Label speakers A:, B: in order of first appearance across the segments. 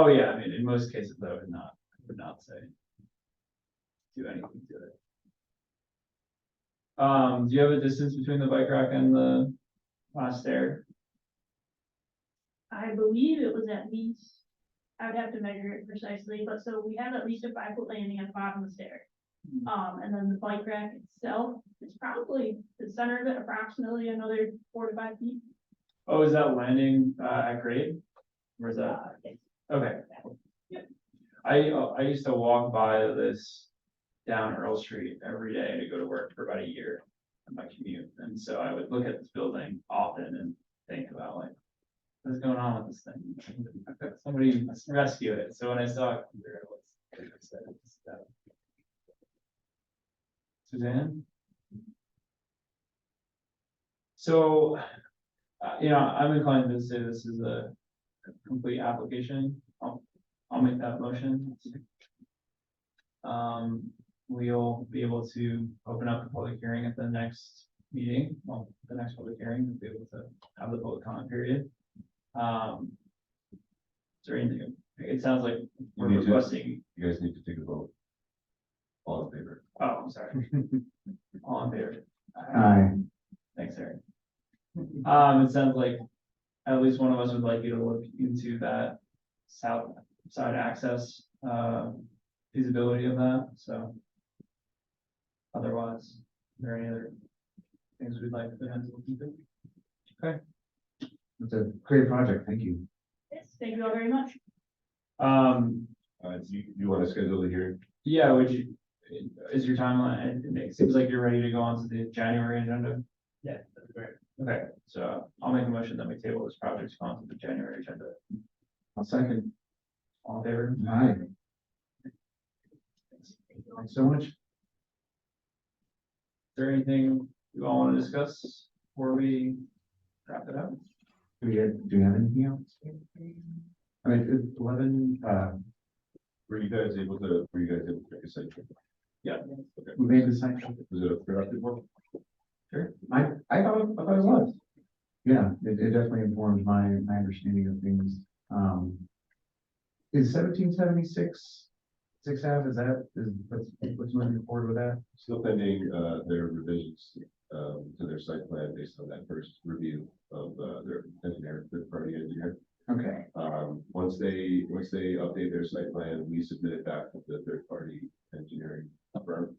A: Oh, yeah, I mean, in most cases, I would not, I would not say. Do anything to it. Um, do you have a distance between the bike rack and the uh, stair?
B: I believe it was at least, I would have to measure it precisely, but so we have at least a five foot landing at the bottom of the stair.
A: Mhm.
B: Um, and then the bike rack itself, it's probably the center of it approximately another four to five feet.
A: Oh, is that landing, uh, at grade? Where's that?
B: Uh, it's
A: Okay. I, uh, I used to walk by this down Earl Street every day to go to work for about a year on my commute. And so I would look at this building often and think about like, what's going on with this thing? Somebody must rescue it. So when I saw it, there it was. Suzanne? So, uh, you know, I'm inclined to say this is a complete application. I'll, I'll make that motion. Um, we'll be able to open up the public hearing at the next meeting, well, the next public hearing, we'll be able to have the public comment period. Um. Is there anything, it sounds like we're
C: You need to-
A: requesting,
C: You guys need to take a vote. All in favor?
A: oh, I'm sorry. Oh, All in favor?
D: Aye.
A: Uh, Thanks, Eric. Um, it sounds like at least one of us would like you to look into that south side access, uh, feasibility of that, so. Otherwise, are there any other things we'd like to have to look into?
D: It's a great project, thank you.
B: Yes, thank you all very much.
A: Um,
C: Uh, do you, do you want to schedule the hearing?
A: yeah, would you, is your timeline, it- it seems like you're ready to go on to the January agenda? Yeah, that's great. Okay, so I'll make a motion that we table this project on to the January agenda.
D: I'll second.
A: All in favor?
D: Aye. Thanks so much.
A: Is there anything you all want to discuss before we wrap it up?
D: Do we, have- do we have anything else? I mean, it's eleven, uh,
C: Were you guys able to, were you guys able to take a site trip?
A: Yeah.
C: Okay.
D: we made the site.
C: Was it a productive one?
D: I, I thought, it- I thought it was. Yeah, it, it definitely informed my, my understanding of things. Um, is seventeen seventy-six, six half, is that, is, what's, what's moving forward with that?
C: Still pending, uh, their revisions, um, to their site plan based on that first review of, uh, their engineer, third party engineer.
D: Okay.
C: Um, once they, once they update their site plan, we submit it back to the third party engineering firm.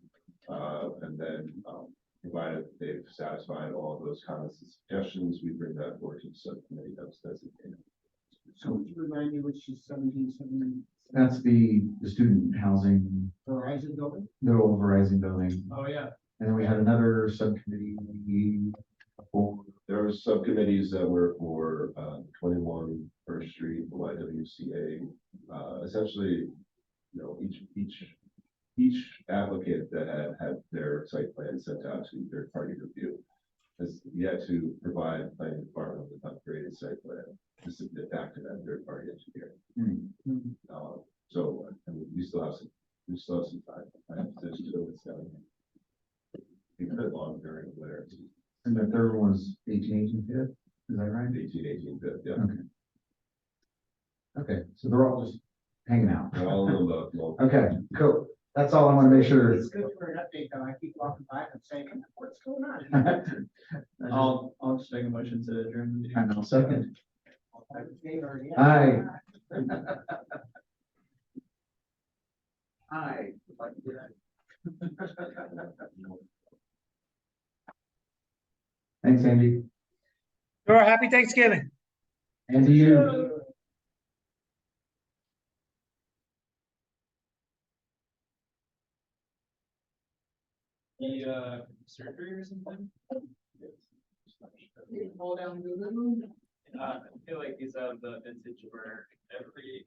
C: Uh, and then, um, provided they've satisfied all of those comments and suggestions, we bring that forward to the subcommittee that's designated.
E: So would you remind me which is seventeen seventy
D: That's the, the student housing,
E: Verizon building?
D: the old Verizon building.
A: Oh, yeah.
D: And then we had another subcommittee for,
C: There are subcommittees that were for, uh, twenty-one First Street, YWCA, uh, essentially, you know, each, each, each applicant that had, had their site plan sent out to third party review has yet to provide planning department with an upgraded site plan to submit back to that third party engineer. Uh, so, I mean, we still have some, we still have some time. I have to do it, so. It's been long during the winter,
D: and the third one was eighteen eighteen fifth, is that right?
C: eighteen, eighteen, but, yeah.
D: Okay, so they're all just hanging out.
C: They're all in the love, well,
D: Okay, cool. That's all I want to make sure.
E: It's good for an update, though. I keep walking by and saying, "Hey, what's going on?
D: I'll,
A: I'll, I'll just make a motion to adjourn the meeting.
D: and I'll second.
E: I was there already.
D: Aye. Hi. Thanks, Andy.
F: Sure, happy Thanksgiving.
D: And to you.
A: The, uh, surgery or something?
E: Hold on, do the-
A: Uh, I feel like these are the vintage where every